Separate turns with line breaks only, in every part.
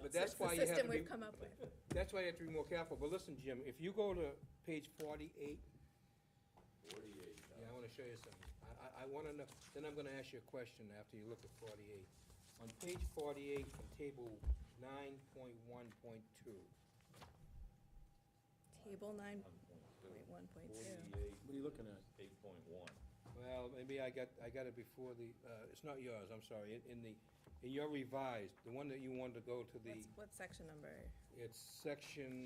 But
It's
that's why you
The
have to
system
be.
we've come up with.
That's why you have to be more careful, but listen, Jim, if you go to page forty-eight,
Forty-eight,
yeah, I wanna show you something. I, I, I wanna know, then I'm gonna ask you a question after you look at forty-eight. On page forty-eight, from table nine point one point two,
Table nine
one point two.
point one point two.
Forty-eight,
What are you looking at?
eight point one.
well, maybe I got, I got it before the, uh, it's not yours, I'm sorry, in, in the, in your revised, the one that you wanted to go to the,
What's, what section number?
it's section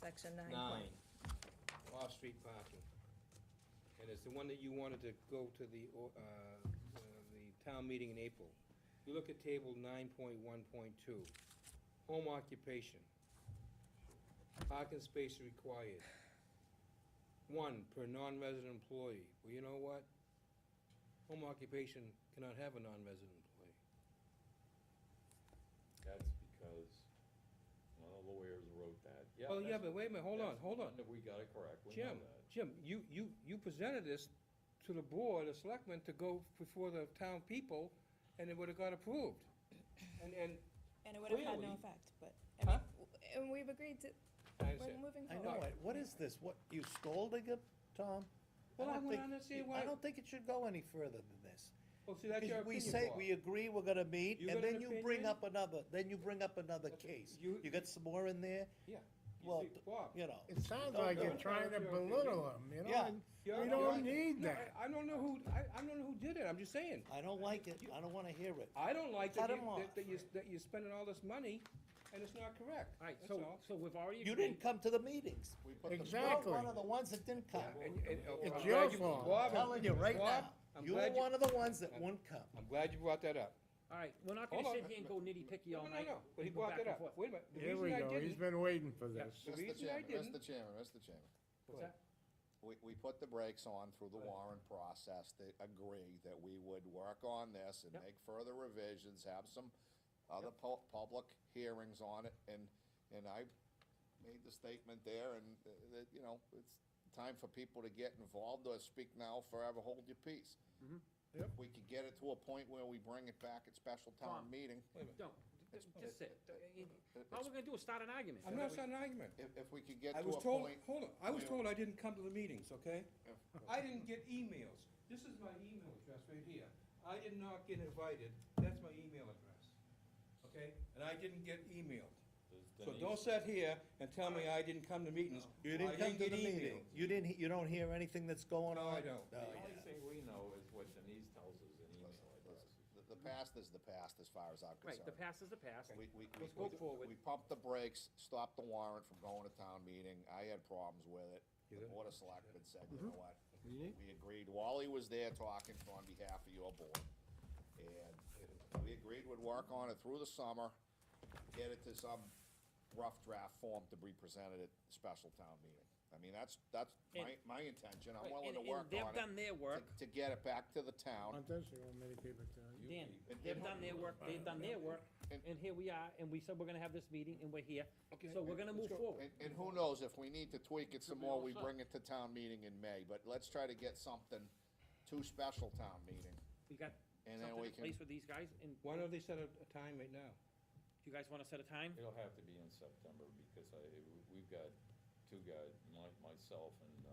Section nine
nine,
point.
off-street parking. And it's the one that you wanted to go to the, o- uh, uh, the town meeting in April. You look at table nine point one point two, home occupation. Parking space required. One per non-resident employee. Well, you know what? Home occupation cannot have a non-resident employee.
That's because, well, the lawyers wrote that. Yeah,
Well, Oh, yeah,
that's-
but wait a minute, hold on,
that's
hold on.
one that We got it correct, we know
Jim,
that.
Jim, you, you, you presented this to the board, the selectmen, to go before the town people, and it would've got approved. And, and,
And it would have had
Clearly.
no effect, but, I mean,
Huh?
w- and we've agreed to,
I
we're
said,
moving
I know,
forward.
it. what is this? What, you scolding him, Tom?
well,
I
I
don't
went
think-
on to see
I
why,
don't think it should go any further than this.
well, see, that's your
'Cause we
opinion,
say,
Bob.
we agree we're gonna meet,
You
and
got an
then you bring
opinion?
up another, then you bring up another
Okay,
case.
you-
You got some more in there,
Yeah, you
well,
see, Bob.
you know.
It sounds
Oh,
like you're trying to belittle him, you know,
Yeah.
and
you're-
we don't
you're-
need
No,
that.
I I don't know who, I, I don't know who did it, I'm just saying.
I don't like it, I don't wanna hear it.
I don't like that
Cut
you,
'em off.
that- that you, that you're spending all this money, and it's not correct,
All right,
that's
so,
all.
so we've already
You
agreed,
didn't come to the meetings. But the- you're
Exactly.
One of the ones that didn't come.
And- and- oh, I'm
It's
glad
your
you-
fault.
Bob,
I'm telling you right
Bob,
now,
I'm
you were
glad you-
one of the ones that wouldn't come.
I'm glad you brought that up.
all right, we're not gonna
Hold
sit
on.
here and go nitty-picky all
No, no,
night.
no, but he
and go
brought
back
that
and
up,
forth.
wait a minute, the
Here
reason
we
I
go, he's
didn't,
been waiting for
Yeah.
this.
the
Mr.
reason I
Chairman,
didn't.
Mr. Chairman, Mr. Chairman,
What's that?
we, we put the brakes on through the warrant process to agree that we would work on this and
Yep.
make further revisions, have some other pu- public hearings on it, and, and I made the statement there, and uh, that, you know, it's time for people to get involved or speak now, forever hold your peace.
Mm-hmm.
If we could get it to a point where we bring it back at special town
Tom.
meeting,
Don't, just- just sit. All we're gonna do is start an argument.
I'm not starting an argument.
if, if we could get
I
to
was
a
told,
point.
hold on, I was
Yeah.
told I didn't come to the meetings, okay?
Yeah.
I didn't get emails. This is my email address right here. I did not get invited. That's my email address, okay? And I didn't get emailed.
Does
So
Denise-
don't sit here and tell me I didn't come to meetings.
You
I
didn't come to
get
the meeting.
emailed.
You didn't, he- you don't hear anything that's going
No,
on?
I don't.
No,
The
you-
only thing we know is what Denise tells us in email address.
The, the past is the past as far as I'm concerned.
Right, the past is the past.
We, we, we.
Let's go
we-
forward.
We pumped the brakes, stopped the warrant from going to town meeting, I had problems with it. The board of selectmen said, you
Mm-hmm.
know what? We agreed, Wally was there talking on behalf of your board. And we agreed we'd work on it through the summer, get it to some rough draft form to be presented at special town meeting. I mean, that's, that's my, my intention, I'm
Right,
willing
and-
to
and
work on it.
they've done their
to-
work.
To get it back to the town.
Not this, you want me to keep it down.
Dan, they've done their work, they've done their work,
And-
and here we are, and we said we're gonna have this meeting, and we're here,
Okay,
so we're gonna move forward.
And, and who knows, if we need to tweak it some more, we bring it to town meeting in May, but let's try to get something to special town meeting.
We got
And then
something
we
in
can-
place with these guys, and
Why don't they set a, a time right now?
you guys wanna set a time?
It'll have to be in September because I, we- we've got two guys, my, myself and, uh,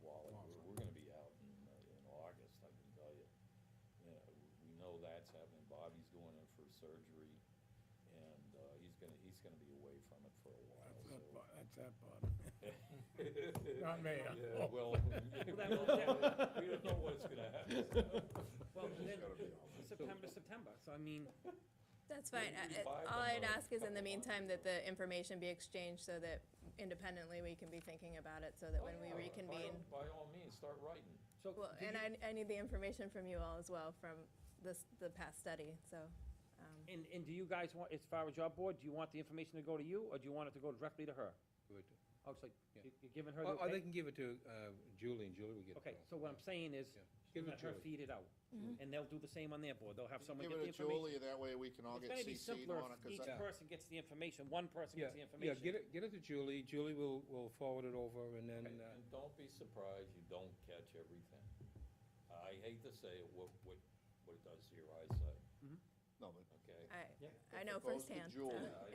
Wally, we're, we're gonna be out in, uh, in August, I can tell you. Yeah, we know that's happening, Bobby's going in for surgery and, uh, he's gonna, he's gonna be away from it for a while,
That's
so.
that part, that's that part. Not me.
Yeah, well, we
that
don't
will-
know- we don't know what's gonna happen.
Well, then, September, September, so I mean,
That's fine.
Maybe
I- I-
five
All
and
I'd
a
ask is
couple
in the
of
meantime
lines.
that the information be exchanged so that independently we can be thinking about it so that when we
By all-
reconvene.
By all means, start writing.
so.
Well,
did
and
you-
I, I need the information from you all as well from this, the past study, so. um,
And, and do you guys want, as far as your board, do you want the information to go to you, or do you want it to go directly to her? Oh, it's like,
Yeah.
you- you're giving her the
Or, or they can
okay?
give it to, uh, Julie, and Julie will get it.
Okay,
all.
so what I'm saying is,
Yeah. Give it
let
to
her
her.
feed it out,
Mm-hmm.
and they'll do the same on their board, they'll have someone
Give
get the
it to
information.
Julie, that way we can all
It's
get
gonna be
CC'd
simpler
on
if
it, 'cause
each
I-
person gets the information, one person
Yeah,
gets the
yeah,
information.
get it, get it to Julie, Julie will, will forward it over, and then,
And,
uh,
and don't be surprised you don't catch everything. I hate to say it, what, what, what it does to your eyesight,
no, but
okay?
I,
if
I
it
know
goes to
firsthand, so.
Julie,
I-